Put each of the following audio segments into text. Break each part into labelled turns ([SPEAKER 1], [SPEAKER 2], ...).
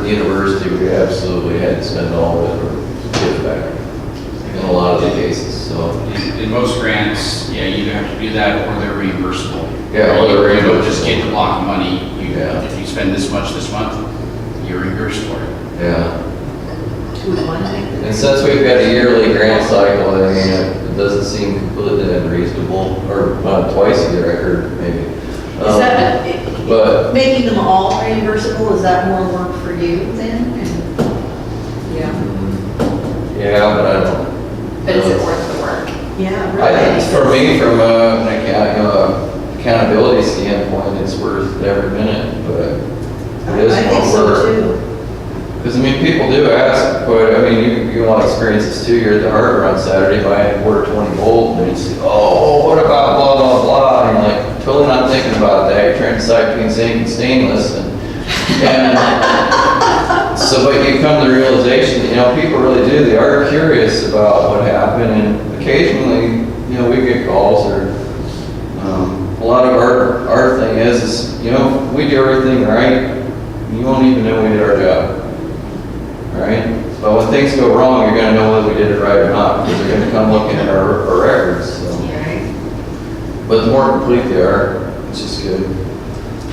[SPEAKER 1] the university, we absolutely had to spend all of it or give back in a lot of the cases, so.
[SPEAKER 2] In in most grants, yeah, you either have to do that or they're reimbursable.
[SPEAKER 1] Yeah, or they're
[SPEAKER 2] You don't just
[SPEAKER 1] reimbursable.
[SPEAKER 2] get the block of money. You,
[SPEAKER 1] Yeah.
[SPEAKER 2] if you spend this much this month, you're reimbursed for it.
[SPEAKER 1] Yeah,
[SPEAKER 3] one thing.
[SPEAKER 1] and since we've got a yearly grant cycle, I mean, it doesn't seem completely unreasonable, or uh, twice a year, I heard, maybe.
[SPEAKER 3] Is that,
[SPEAKER 1] Um, But,
[SPEAKER 3] making them all reimbursable, is that more work for you then? And- Yeah.
[SPEAKER 1] mm, yeah, but I don't.
[SPEAKER 4] But is it
[SPEAKER 1] know.
[SPEAKER 4] worth the work?
[SPEAKER 3] Yeah,
[SPEAKER 1] I think
[SPEAKER 3] really.
[SPEAKER 1] for me, from a- an account- uh, accountability standpoint, it's worth every minute, but it is
[SPEAKER 3] I think
[SPEAKER 1] what
[SPEAKER 3] so
[SPEAKER 1] we're.
[SPEAKER 3] too.
[SPEAKER 1] Because, I mean, people do ask, but, I mean, you, you want experiences too, you're at the harbor on Saturday, buying quarter twenty volt, and it's, oh, what about blah, blah, blah, and I'm like, totally not thinking about that, you're trying to decide between zinc and stainless, and, and, so, but you come to the realization, that, you know, people really do, they are curious about what happened, and occasionally, you know, we get calls or, um, a lot of our, our thing is, is, you know, we do everything right, you won't even know we did our job. Right? But when things go wrong, you're gonna know whether we did it right or not, because they're gonna come looking at our, our records, so.
[SPEAKER 3] Yeah,
[SPEAKER 1] But the more complete they are, it's just good.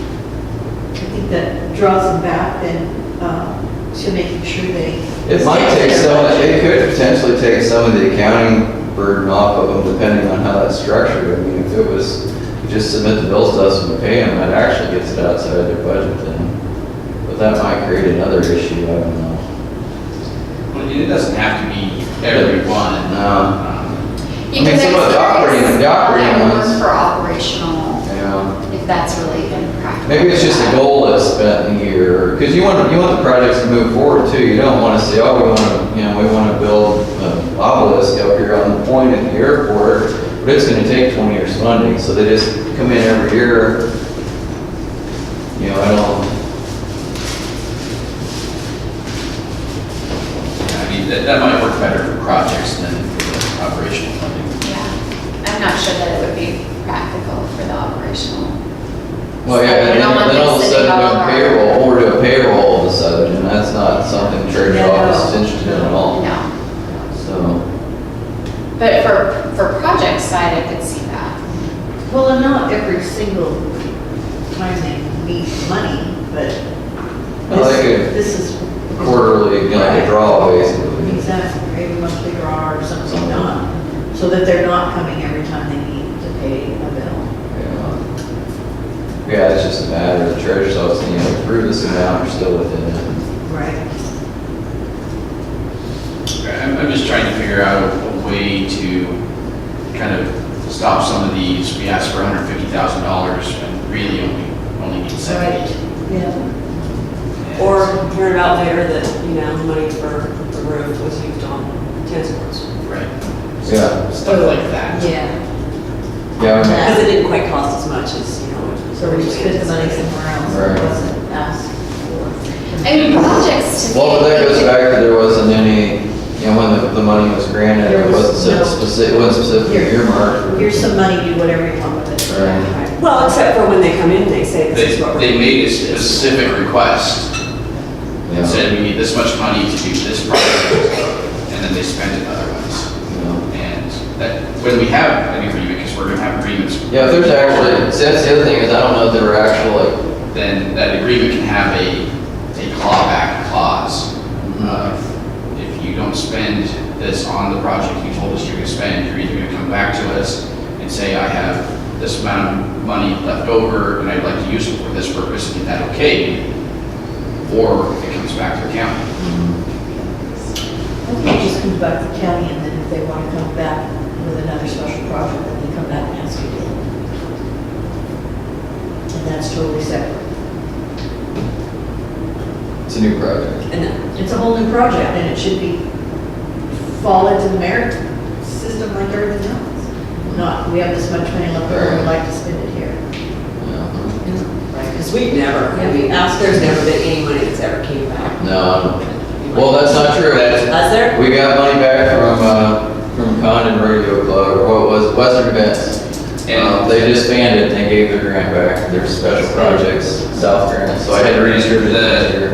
[SPEAKER 3] I think that draws them back then uh, to making sure they.
[SPEAKER 1] It might take some, it could potentially take some of the accounting burden off of them, depending on how that's structured. I mean, if it was, you just submit the bills to us and we pay them, that actually gets it outside their budget then. But that might create another issue, I don't know.
[SPEAKER 2] Well, it doesn't have to be everyone.
[SPEAKER 1] No.
[SPEAKER 2] Um,
[SPEAKER 4] You
[SPEAKER 1] I mean,
[SPEAKER 4] can
[SPEAKER 1] some of the operating- the operating
[SPEAKER 4] experience
[SPEAKER 1] ones-
[SPEAKER 4] that work For operational,
[SPEAKER 1] Yeah.
[SPEAKER 4] if that's really even practical.
[SPEAKER 1] Maybe it's just a goal that's spent in a year, because you want, you want the projects to move forward too. You don't want to say, oh, we want to, you know, we want to build an obelisk up here on the point at the airport, but it's going to take 20 years funding, so they just come in every year. You know, I don't,
[SPEAKER 2] I mean, that, that might work better for projects than for operational funding.
[SPEAKER 4] Yeah, I'm not sure that it would be practical for the operational.
[SPEAKER 1] well, yeah, and
[SPEAKER 4] No one
[SPEAKER 1] then then all of a
[SPEAKER 4] thinks
[SPEAKER 1] sudden
[SPEAKER 4] that
[SPEAKER 1] doing
[SPEAKER 4] they all are.
[SPEAKER 1] payroll, we're doing payroll all of a sudden, and that's not something church
[SPEAKER 3] No.
[SPEAKER 1] office is interested in at all,
[SPEAKER 4] No,
[SPEAKER 1] so.
[SPEAKER 4] but for, for project side, I could see that.
[SPEAKER 3] Well, and not every single time they need money, but
[SPEAKER 1] Well, they
[SPEAKER 3] this,
[SPEAKER 1] could-
[SPEAKER 3] this is.
[SPEAKER 1] Quarterly, you know, like a draw basically.
[SPEAKER 3] Exactly, maybe monthly draw or something not, so that they're not coming every time they need to pay a bill.
[SPEAKER 1] Yeah, Yeah, it's just a matter of the treasurer's office, you know, approve this amount, we're still within it.
[SPEAKER 3] Right.
[SPEAKER 2] I'm, I'm just trying to figure out a way to kind of stop some of these. We ask for hundred fifty thousand dollars and really only, only need seventy.
[SPEAKER 3] Yeah.
[SPEAKER 2] And-
[SPEAKER 5] Or hearing out later that, you know, money for the roof was used on tennis courts.
[SPEAKER 2] Right.
[SPEAKER 1] Yeah.
[SPEAKER 2] Stuff like that.
[SPEAKER 3] Yeah,
[SPEAKER 1] Yeah, I mean,
[SPEAKER 5] Because it didn't quite cost as much as, you know. it was
[SPEAKER 3] so we just put the money
[SPEAKER 5] originally
[SPEAKER 3] somewhere else,
[SPEAKER 1] Right.
[SPEAKER 3] it wasn't asked for.
[SPEAKER 4] I mean, projects to me.
[SPEAKER 1] Mm-hmm. well, but that goes back to there wasn't any, you know, when the, the money was granted,
[SPEAKER 3] There
[SPEAKER 1] it
[SPEAKER 3] was
[SPEAKER 1] wasn't
[SPEAKER 3] no-
[SPEAKER 1] said specific, it wasn't specifically
[SPEAKER 3] Here-
[SPEAKER 1] earmarked. for-
[SPEAKER 3] Here's some money, do whatever you want with it.
[SPEAKER 1] Right.
[SPEAKER 5] paid. Well, except for when they come in, they say
[SPEAKER 2] They,
[SPEAKER 5] this is what we're.
[SPEAKER 2] they made a specific request
[SPEAKER 1] Yeah,
[SPEAKER 2] and said, we need this much money to do this project, and then they spent it otherwise.
[SPEAKER 1] yeah.
[SPEAKER 2] And that, when we have an agreement, because we're gonna have agreements.
[SPEAKER 1] Yeah, if there's actually, see, that's the other thing is I don't know if there were actual like
[SPEAKER 2] Then that agreement can have a, a clawback clause. Uh, If you don't spend this on the project you told us you're gonna spend, you're either gonna come back to us and say, I have this amount of money left over, and I'd like to use it for this purpose, and get that okay? Or it comes back to the county.
[SPEAKER 3] I think it just comes back to county, and then if they want to come back with another special project, then they come back and ask you to. And that's totally separate.
[SPEAKER 1] it's a new project.
[SPEAKER 5] And then,
[SPEAKER 3] It's a whole new project, and it should be, fall into the merit system like everything else. Not, we have this much money left over, we'd like to spend it here.
[SPEAKER 1] Yeah.
[SPEAKER 5] right, because we've never, I mean,
[SPEAKER 3] Yeah.
[SPEAKER 5] there's never been any money that's ever came back.
[SPEAKER 1] No, well, that's not true. That's,
[SPEAKER 5] Us there?
[SPEAKER 1] We got money back from, uh, from Condon Radio Club, or what was, Western Events. Uh,
[SPEAKER 2] And-
[SPEAKER 1] They disbanded, and they gave their grant back, their special projects, South Grant, so I had to redistribute that.